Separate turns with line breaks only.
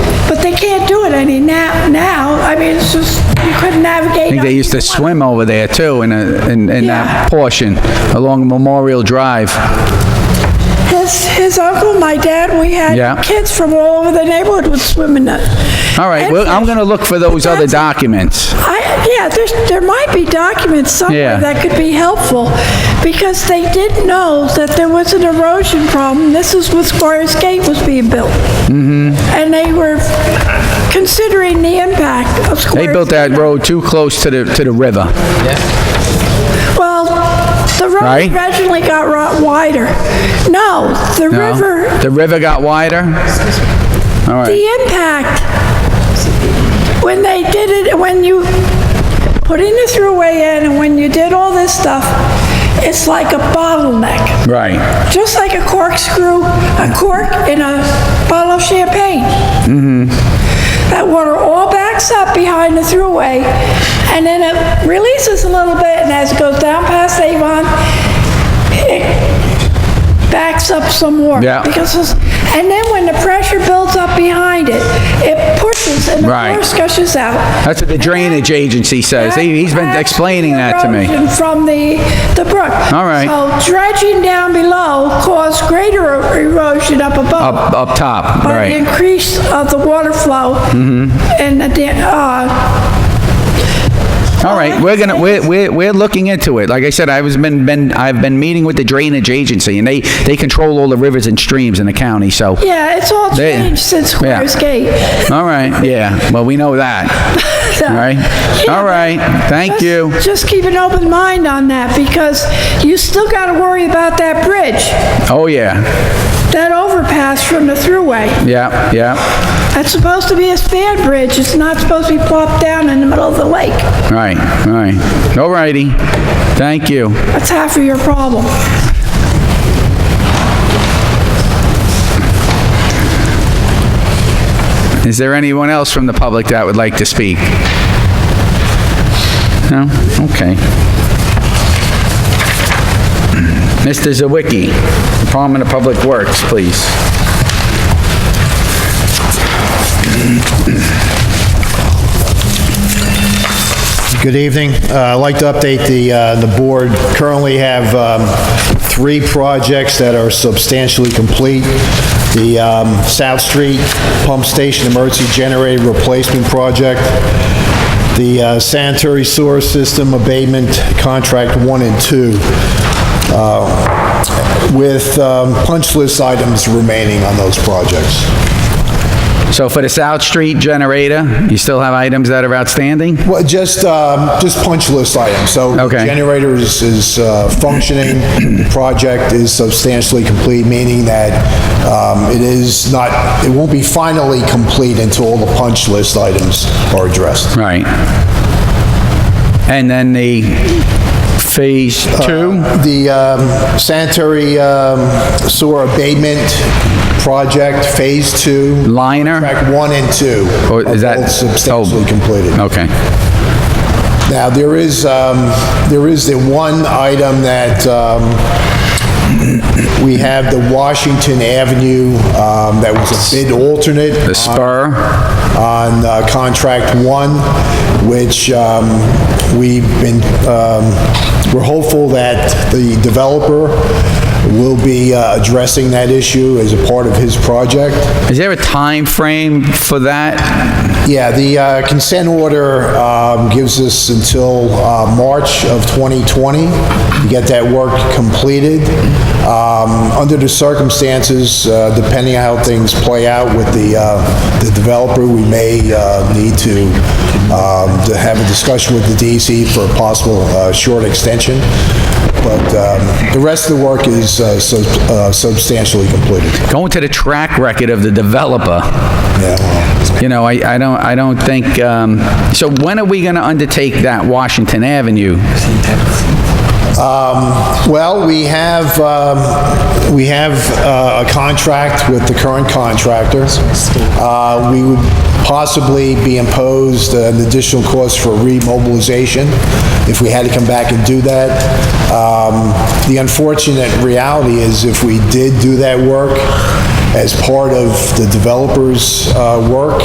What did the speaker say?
But they can't do it any now, now, I mean, it's just, you couldn't navigate.
I think they used to swim over there too, in a, in, in
Yeah.
that portion, along Memorial Drive.
His, his uncle, my dad, we
Yeah.
had kids from all over the neighborhood would swim in it.
All right, well, I'm gonna look for those other documents.
I, yeah, there's, there might be documents
Yeah.
somewhere that could be helpful, because they did know that there was an erosion problem. This is when Squires Gate was being built. Mm-hmm. And they were considering the impact of Squires.
They built that
Gate.
road too close to the, to the river.
Well, the
Right?
road originally got ro- wider. No, the
No?
river,
The river got wider? All right,
the impact, when they did it, when you put in the throughway in and when you did all this stuff, it's like a bottleneck.
right.
just like a corkscrew, a cork in a bottle of champagne.
Mm-hmm.
That water all backs up behind the throughway, and then it releases a little bit, and as it goes down past Avon, it backs up some more.
Yeah.
Because, it's- and then when the pressure builds up behind it, it pushes and the
Right.
force gushes out.
That's what the drainage agency says. He- He's been explaining that to me.
Erosion From the, the brook.
All right.
So dredging down below caused greater er, erosion up above
Up, up top,
by the
right. Mm-hmm.
increase of the water flow and the, da- uh,
All right, we're gonna, we're, we're, we're looking into it. Like I said, I was been, been, I've been meeting with the drainage agency, and they, they control all the rivers and streams in the county, so.
yeah, it's all
They-
changed since
yeah.
Squires Gate.
All right, yeah, well, we know that,
So-
all right? All right, thank you.
Just keep an open mind on that because you still got to worry about that bridge,
Oh, yeah,
that overpass from the thruway.
yeah, yeah,
That's supposed to be a span bridge. It's not supposed to be plopped down in the middle of the lake.
All right, all right. All righty, thank you.
That's half of your problem.
Is there anyone else from the public that would like to speak? No? Okay. Mr. Zawicki, Department of Public Works, please.
Good evening. Uh, I'd like to update the, uh, the board. Currently have um, three projects that are substantially complete. The um, South Street Pump Station Emergency Generator Replacement Project, the uh, Sanitary Sewer System Abatement Contract 1 and 2, uh, with um, punch list items remaining on those projects.
So for the South Street generator, you still have items that are outstanding?
Well, just, um, just punch list items, so.
Okay.
Generator is, is uh, functioning, project is substantially complete, meaning that, um, it is not, it won't be finally complete until all the punch list items are addressed.
Right. And then the Phase 2?
The um, sanitary um, sewer abatement project, phase two.
Liner?
Track one and two.
Or Oh, is
are
that-
both Substantially
oh.
completed.
Okay.
Now, there is, um, there is the one item that, um, we have the Washington Avenue, um, that was a bid alternate.
The spur?
On, uh, contract one, which, um, we've been, um, we're hopeful that the developer will be uh, addressing that issue as a part of his project.
Is there a time frame for that?
Yeah, the uh, consent order um, gives us until uh, March of 2020 to get that work completed. Um, Under the circumstances, uh, depending on how things play out with the uh, the developer, we may uh, need to um, to have a discussion with the DEC for a possible uh, short extension, but um, the rest of the work is uh, sub- uh, substantially completed.
Going to the track record of the developer.
Yeah, well,
You know, I, I don't, I don't think, um, so when are we gonna undertake that Washington Avenue?
Well, we have, um, we have uh, a contract with the current contractor. Uh, We would possibly be imposed an additional cost for remobilization if we had to come back and do that. Um, The unfortunate reality is if we did do that work as part of the developer's uh, work,